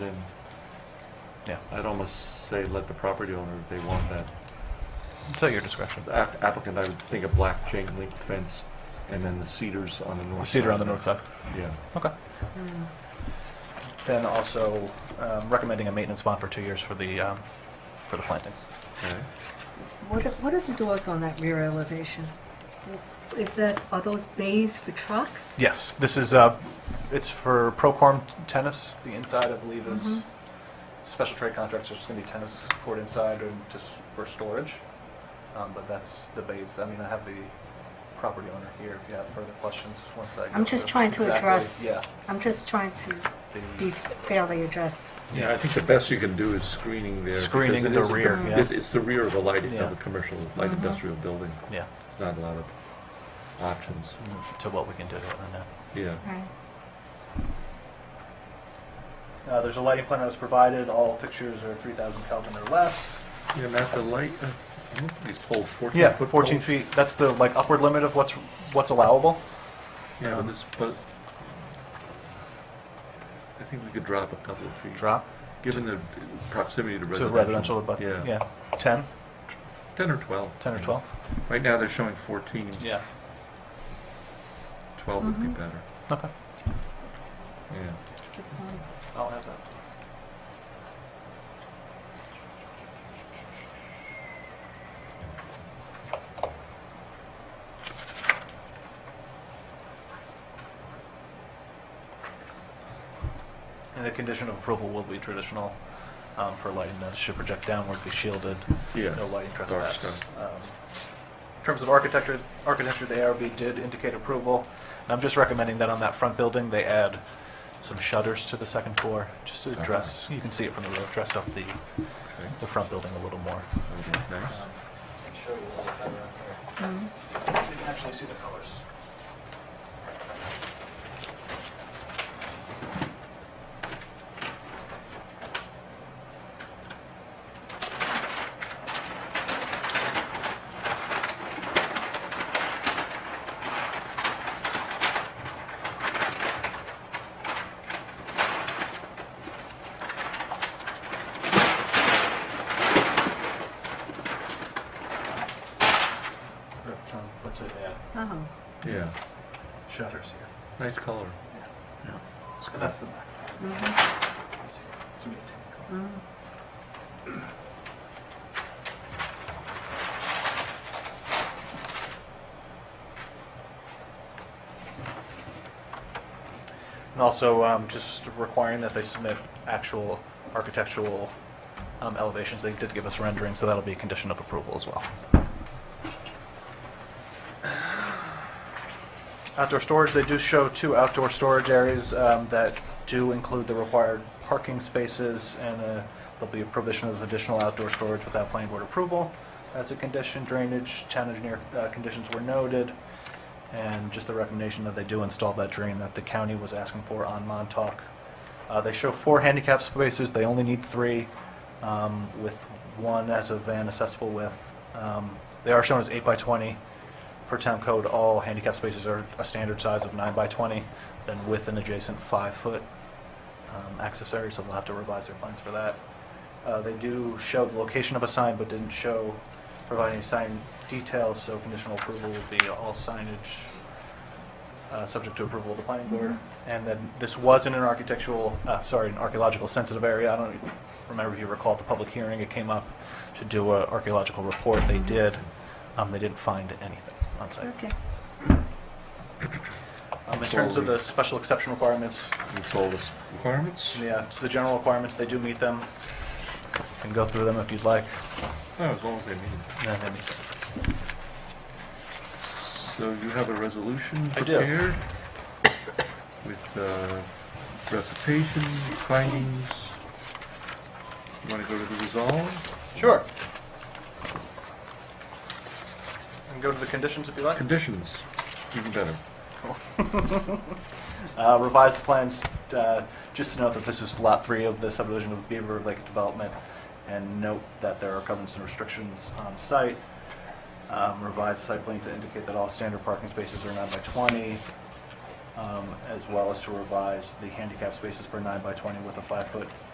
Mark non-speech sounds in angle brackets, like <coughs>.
Yeah, I'd almost say let the property owner, if they want that. it's at your discretion. The app- Applicant, I would think a black chain link fence and then the cedars on the north. Cedar on the north side. Yeah. Okay. Hmm. Then also um, recommending a maintenance bond for two years for the, um, for the plantings. okay. What are, what are the doors on that rear elevation? Is that, are those bays for trucks? Yes, this is, uh, it's for Procorm t- tennis. The inside, I believe, is Mhm. special trade contracts. There's going to be tennis court inside and just for storage. Um, But that's the base. I mean, I have the property owner here if you have further questions once I go I'm just through trying to exactly- address, Yeah. I'm just trying to the- be fairly address. Yeah, I think the best you can do is screening there. because Screening it the is a- rear, yeah. it- It's the rear of a light, Yeah. of a commercial, light Mhm. industrial building. Yeah, Mm-hmm. It's not a lot of options. to what we can do. and then- Yeah. Right. Uh, There's a lighting plan that was provided. All fixtures are 3,000 Kelvin or less. Yeah, Matt, the light, uh, these poles, 14 foot. Yeah, 14 poles. feet. That's the like upward limit of what's what's allowable. Yeah, but this, but I think we could drop a couple of feet. Drop Given the proximity to to residential. residential, but yeah, 10, 10 or 12. 10 or yeah. 12. Right now, they're showing 14. Yeah. 12 would be Mhm. better. Okay. Yeah. Good point. I'll have that. And the condition of approval will be traditional um, for lighting that it should project downward, be shielded, Yeah. no lighting Dark trespass. sky. Um, In terms of architecture, architecture, the ARB did indicate approval. And I'm just recommending that on that front building, they add some shutters to the second floor, just to dress, you can see it from the road, dress up the, Okay. the front building a little more. that would look Nice. Um, Show you a little better up Mhm. here. So you can actually see the colors. Tom, what's it um, add? Oh, Yeah. Shutters here. Nice color. It's And good. that's the back. mhm, Mm-hmm. It's a mid-tan color. mhm. And also, um, just requiring that they submit actual architectural um, elevations. They did give us rendering, so that'll be a condition of approval as well. Outdoor storage, they do show two outdoor storage areas um, that do include the required parking spaces, and uh, there'll be a provision of additional outdoor storage without planning board approval. As a condition, drainage, town engineer uh, conditions were noted. And just the recommendation that they do install that drain that the county was asking for on Montauk. Uh, They show four handicap spaces, they only need three, um, with one as a van accessible width. Um, They are shown as eight by 20. Per town code, all handicap spaces are a standard size of nine by 20, then with an adjacent five-foot um, access area, so they'll have to revise their plans for that. Uh, They do show the location of a sign, but didn't show, provide any sign details, so conditional approval will be all signage, uh, subject to approval of the planning board. And then this was in an architectural, uh, sorry, an archaeological sensitive area. I don't remember if you recall at the public hearing, it came up to do an archaeological report. They did. Um, They didn't find anything on site. Okay. Um, In terms of the special exception requirements, Meets all the s- requirements? yeah, so the general requirements, they do meet them. Can go through them if you'd like. Oh, as long as they meet. No, they meet them. So you have a resolution I do. prepared? <coughs> With uh, recitation, findings. You want to go to the resolve? Sure. And go to the conditions if you like. Conditions, even better. Uh, revised plans, uh, just to note that this is lot three of the subdivision of Beaver Lake Development, and note that there are covenants and restrictions on site. Um, revised site plan to indicate that all standard parking spaces are nine by twenty, um, as well as to revise the handicap spaces for nine by twenty with a five-foot